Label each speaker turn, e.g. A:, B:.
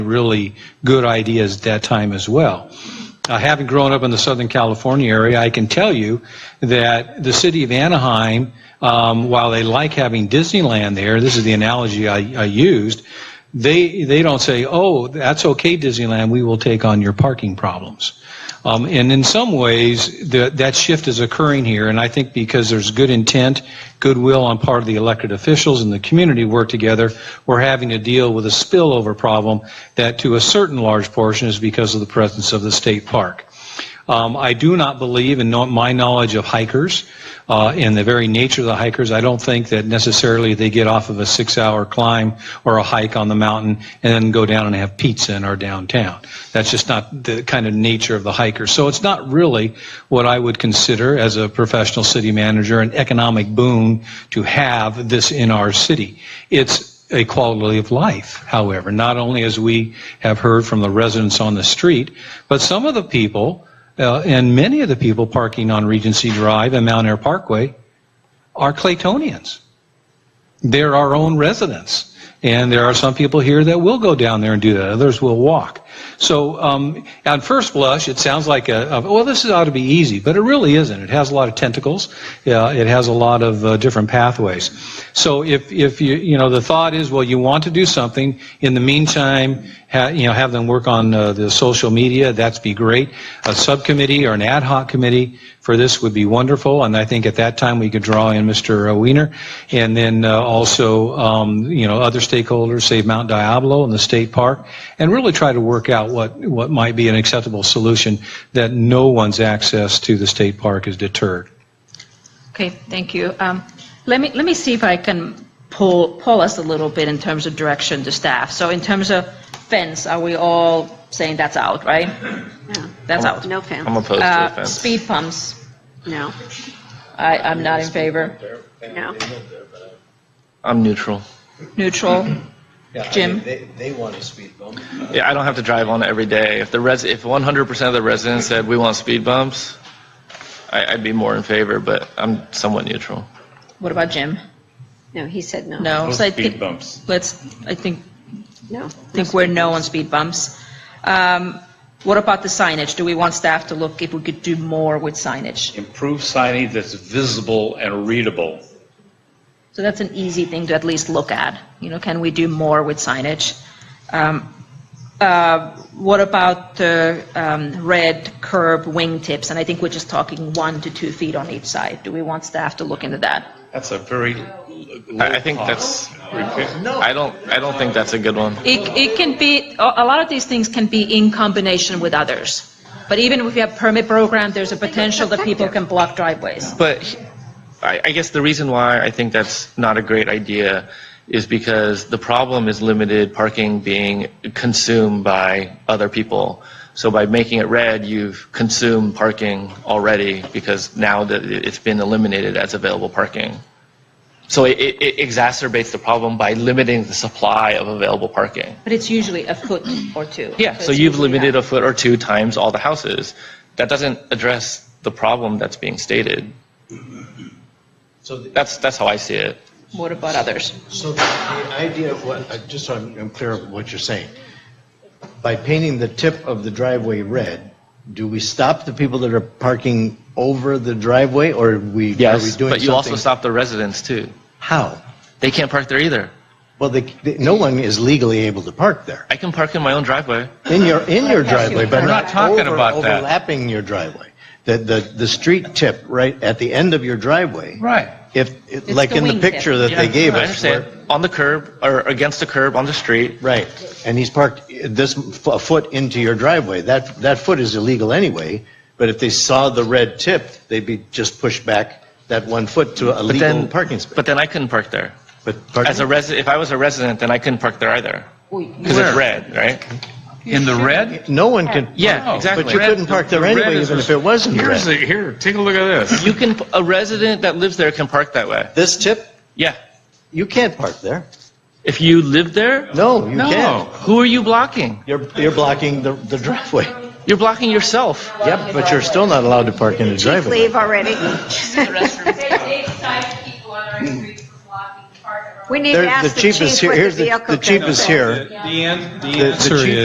A: really good ideas at that time as well. Uh, having grown up in the Southern California area, I can tell you that the city of Anaheim, um, while they like having Disneyland there, this is the analogy I, I used, they, they don't say, oh, that's okay, Disneyland, we will take on your parking problems. Um, and in some ways, the, that shift is occurring here, and I think because there's good intent, goodwill on part of the elected officials and the community work together, we're having to deal with a spillover problem that to a certain large portion is because of the presence of the state park. Um, I do not believe, in no- my knowledge of hikers uh, and the very nature of the hikers, I don't think that necessarily they get off of a six-hour climb or a hike on the mountain and then go down and have pizza in our downtown. That's just not the kind of nature of the hiker. So it's not really what I would consider, as a professional city manager, an economic boon to have this in our city. It's a quality of life, however, not only as we have heard from the residents on the street, but some of the people, uh, and many of the people parking on Regency Drive and Mount Air Parkway are Claytonians. They're our own residents. And there are some people here that will go down there and do that. Others will walk. So um, on first blush, it sounds like a, a well, this ought to be easy, but it really isn't. It has a lot of tentacles. Uh, it has a lot of uh, different pathways. So if if you you know the thought is well, you want to do something. In the meantime, ha, you know have them work on uh, the social media. That's be great. A subcommittee or an ad hoc committee for this would be wonderful. And I think at that time we could draw in Mr. Weiner and then uh, also, um, you know, other stakeholders, say Mount Diablo and the state park, and really try to work out what, what might be an acceptable solution that no one's access to the state park is deterred.
B: Okay, thank you. Um, Let me, let me see if I can pull, pull us a little bit in terms of direction to staff. So in terms of fence, are we all saying that's out, right? That's out.
C: No fence,
D: I'm opposed to
B: Uh,
D: the fence.
B: Speed bumps,
C: no,
B: I, I'm not in favor.
C: no.
D: I'm neutral.
B: Neutral, Jim?
E: They, they want a speed bump.
D: Yeah, I don't have to drive on it every day. If the res, if 100% of the residents said we want speed bumps, I, I'd be more in favor, but I'm somewhat neutral.
B: What about Jim?
C: No, he said no.
B: No. so I think-
F: Speed bumps.
B: Let's, I think,
C: No.
B: think we're no on speed bumps. Um, What about the signage? Do we want staff to look if we could do more with signage?
F: Improve signage that's visible and readable.
B: So that's an easy thing to at least look at. You know, can we do more with signage? Um, uh, What about the um, red curb wingtips? And I think we're just talking one to two feet on each side. Do we want staff to look into that?
F: That's a very l- low
D: I, I think that's, I don't, I don't think that's a good one.
B: It it can be, a a lot of these things can be in combination with others. But even if we have permit program, there's a potential that people can block driveways.
D: But he- I, I guess the reason why I think that's not a great idea is because the problem is limited parking being consumed by other people. So by making it red, you've consumed parking already because now that it- it's been eliminated as available parking. So it, it it exacerbates the problem by limiting the supply of available parking.
B: But it's usually a foot or two.
D: Yeah, so
B: it's
D: you've
B: usually
D: limited
B: that.
D: a foot or two times all the houses. That doesn't address the problem that's being stated.
E: So, the-
D: That's, that's how I see it.
B: What about others?
E: so the idea of what, uh, just so I'm I'm clear of what you're saying, by painting the tip of the driveway red, do we stop the people that are parking over the driveway, or we, are we doing
D: Yes,
E: something?
D: but you also stop the residents too.
E: How?
D: They can't park there either.
E: Well, they, they- no one is legally able to park there,
D: I can park in my own driveway.
E: in your, in your driveway, but
B: We're
E: not
B: not
F: talking
E: over-
F: about that.
E: overlapping your driveway. The, the, the street tip right at the end of your driveway.
D: Right.
E: If, it- like
B: the
E: in the
B: wingtip.
E: picture that they gave us.
D: I
E: where-
D: understand. On the curb or against the curb on the street.
E: Right, and he's parked this f- a foot into your driveway. That, that foot is illegal anyway, but if they saw the red tip, they'd be just pushed back that one foot to a
D: But
E: legal
D: then,
E: parking space.
D: but then I couldn't park there.
E: But
D: As a resident, if I was a resident, then I couldn't park there either. Because it's red, right?
G: In the red?
E: No one can.
D: Yeah, exactly.
E: But you couldn't park there
G: red
E: anyway,
G: is
E: even
G: a-
E: if it wasn't
G: Here's,
E: red.
G: a- here, take a look at this.
D: You can, a resident that lives there can park that way.
E: This tip,
D: Yeah.
E: you can't park there.
D: If you live there,
E: No, you
G: No.
E: can't.
D: who are you blocking?
E: You're, you're blocking the, the driveway.
D: You're blocking yourself.
E: Yep, but you're still not allowed to park in the driveway.
C: Leave already.
H: They, they decide people on our streets for blocking part of
C: We need to
E: There- The
C: ask the chief
E: cheapest here.
C: what the
E: Here's
C: vehicle
E: The
C: code
E: cheapest
C: says.
E: here.
A: The an- the
E: the
A: answer
E: chief-
A: is.